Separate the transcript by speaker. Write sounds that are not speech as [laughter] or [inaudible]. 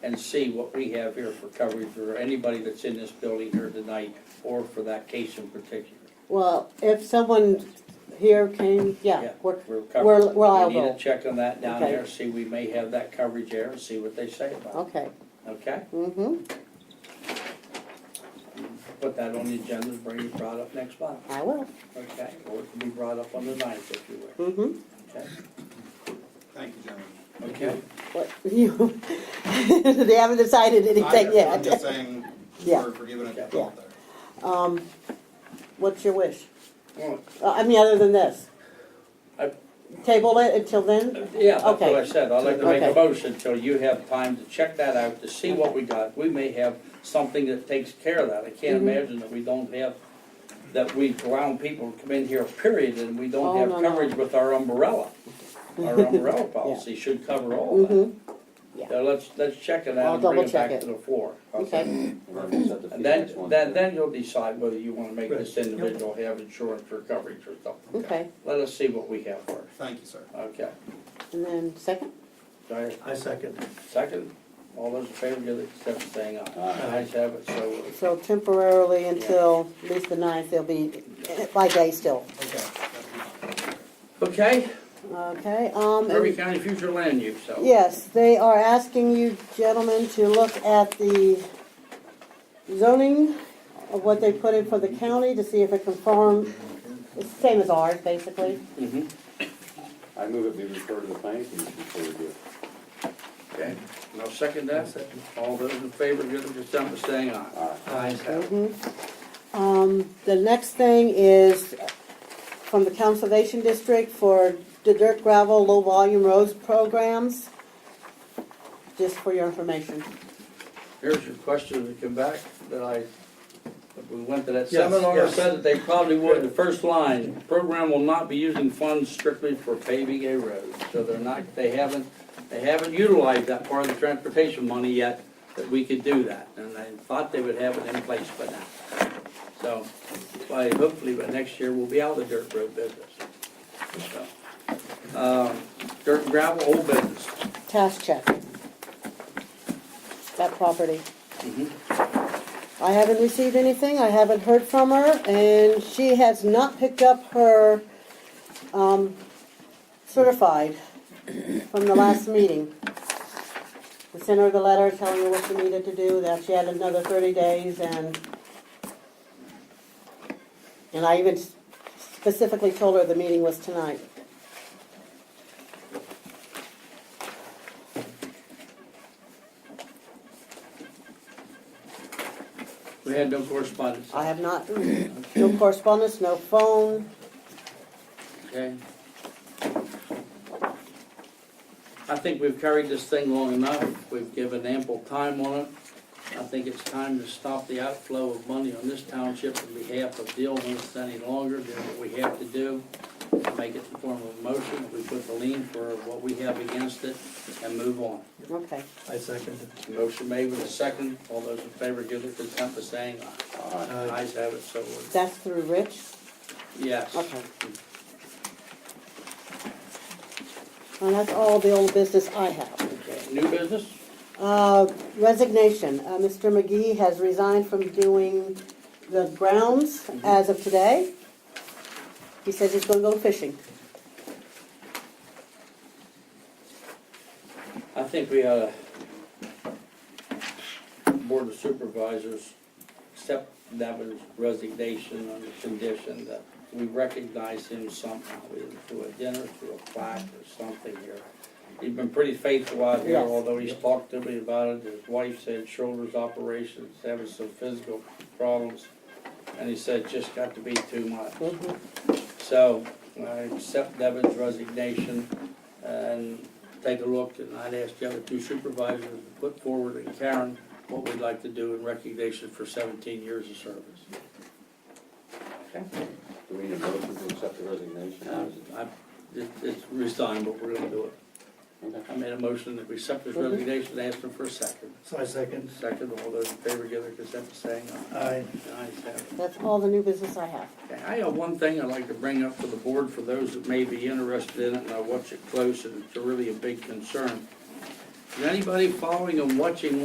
Speaker 1: and see what we have here for coverage for anybody that's in this building here tonight, or for that case in particular.
Speaker 2: Well, if someone here came, yeah,
Speaker 1: Yeah.
Speaker 2: we're,
Speaker 1: We're covered.
Speaker 2: we're, we're
Speaker 1: We need to
Speaker 2: liable.
Speaker 1: check on that down
Speaker 2: Okay.
Speaker 1: there, see, we may have that coverage there, and see what they say about
Speaker 2: Okay,
Speaker 1: it, okay?
Speaker 2: mm-hmm,
Speaker 1: Put that on the agenda, and bring it brought up next month,
Speaker 2: I will,
Speaker 1: okay? Or it can be brought up on the ninth, if you will,
Speaker 2: mm-hmm.
Speaker 1: okay?
Speaker 3: Thank you, gentlemen.
Speaker 1: Okay?
Speaker 2: What, [laughs] you, they haven't decided anything
Speaker 3: I- I'm
Speaker 2: yet.
Speaker 3: just saying,
Speaker 2: Yeah.
Speaker 3: for, for giving it a
Speaker 2: Yeah.
Speaker 3: thought there.
Speaker 2: Um, what's your wish?
Speaker 1: Well,
Speaker 2: Uh, I mean, other than this?
Speaker 1: I-
Speaker 2: Table it until then?
Speaker 1: Yeah, that's what I
Speaker 2: Okay.
Speaker 1: said, I'd like to make a
Speaker 2: Okay.
Speaker 1: motion till you have time to check that out, to see what we got. We may have something that takes care of that, I can't
Speaker 2: Mhm.
Speaker 1: imagine that we don't have, that we allow people to come in here, period, and we don't
Speaker 2: Oh, no,
Speaker 1: have
Speaker 2: no.
Speaker 1: coverage with our umbrella.
Speaker 2: [laughs]
Speaker 1: Our umbrella policy should cover all that.
Speaker 2: Mm-hmm,
Speaker 1: So let's, let's check it
Speaker 2: I'll
Speaker 1: out and bring it
Speaker 2: double-check
Speaker 1: back
Speaker 2: it.
Speaker 1: to the floor.
Speaker 2: okay,
Speaker 1: And then, then, then you'll decide whether you wanna make this individual have insurance or coverage or something.
Speaker 2: okay.
Speaker 1: Let us see what we have first,
Speaker 3: Thank you, sir.
Speaker 1: okay?
Speaker 2: And then second,
Speaker 1: Do I-
Speaker 4: I second.
Speaker 1: Second, all those in favor, give their consent by saying aye.
Speaker 4: Aye.
Speaker 1: Ayes have it, so ordered.
Speaker 2: so temporarily until at least the ninth, they'll be eh, by day still,
Speaker 3: Okay. that'd be fine.
Speaker 1: Okay,
Speaker 2: okay? Um, and-
Speaker 1: Murray County Future Land Use, so.
Speaker 2: Yes, they are asking you gentlemen to look at the zoning of what they put in for the county to see if it conform, it's the same as ours, basically.
Speaker 1: Mhm,
Speaker 5: I move it be referred to the planning commission before we do it.
Speaker 1: okay. Now second that, all those in favor, give their consent by saying aye.
Speaker 5: Aye.
Speaker 1: Ayes have it.
Speaker 2: Mhm. Um, the next thing is from the Conservation District for the dirt gravel low volume roads programs, just for your information.
Speaker 1: Here's your question to come back, that I, that we went to that
Speaker 4: Yes,
Speaker 1: seminar,
Speaker 4: yes.
Speaker 1: said that they probably would, the first line, program will not be using funds strictly for paving a road. So they're not, they haven't, they haven't utilized that part of the transportation money yet, that we could do that. And I thought they would have it in place by now. So, by, hopefully by next year, we'll be out of the dirt road business. So, um, Dirt and gravel, old business.
Speaker 2: Task check. That property.
Speaker 4: Mm-hmm.
Speaker 1: Mhm.
Speaker 2: I haven't received anything, I haven't heard from her, and she has not picked up her, um, certified from the last meeting. We sent her the letter telling her what she needed to do, that she had another thirty days and and I even specifically told her the meeting was tonight.
Speaker 1: We had no correspondence.
Speaker 2: I have not, no correspondence, no phone,
Speaker 1: Okay. I think we've carried this thing long enough. We've given ample time on it. I think it's time to stop the outflow of money on this township on behalf of dealing with it any longer, do what we have to do. Make it in the form of a motion, we put the lien for what we have against it and move on.
Speaker 2: okay.
Speaker 4: I second.
Speaker 1: Motion made with a second. All those in favor give their consent by saying aye.
Speaker 5: Aye.
Speaker 4: Aye.
Speaker 1: Ayes have it, so ordered.
Speaker 2: That's through Rich?
Speaker 1: Yes.
Speaker 2: Okay. And that's all the old business I have.
Speaker 1: Okay. New business?
Speaker 2: Uh, Resignation, Uh, Mr. McGee has resigned from doing the grounds as of today. He says he's gonna go fishing.
Speaker 1: I think we ought to, Board of Supervisors, accept Devin's resignation on the condition that we recognize him somehow, either through a dinner, through a plaque or something here. He's been pretty faithful out here,
Speaker 2: Yes.
Speaker 1: although he's talked to me about it, his wife said shoulders operations, having some physical problems. And he said, just got to be too much.
Speaker 2: Mhm.
Speaker 1: So I accept Devin's resignation and take a look, and I'd ask the other two supervisors to put forward and Karen what we'd like to do in recognition for seventeen years of service.
Speaker 5: Do we need a motion to accept the resignation?
Speaker 1: Uh, I- it- It's resigned, but we're gonna do it. I
Speaker 5: Okay.
Speaker 1: made a motion that we accept his
Speaker 2: Mhm.
Speaker 1: resignation, ask him for a second.
Speaker 4: So I second.
Speaker 1: Second, all those in favor give their consent by saying aye.
Speaker 4: Aye.
Speaker 1: The ayes have it.
Speaker 2: That's all the new business I have.
Speaker 1: Okay, I have one thing I'd like to bring up to the board for those that may be interested in it, and I watch it close, and it's really a big concern. Is anybody following and watching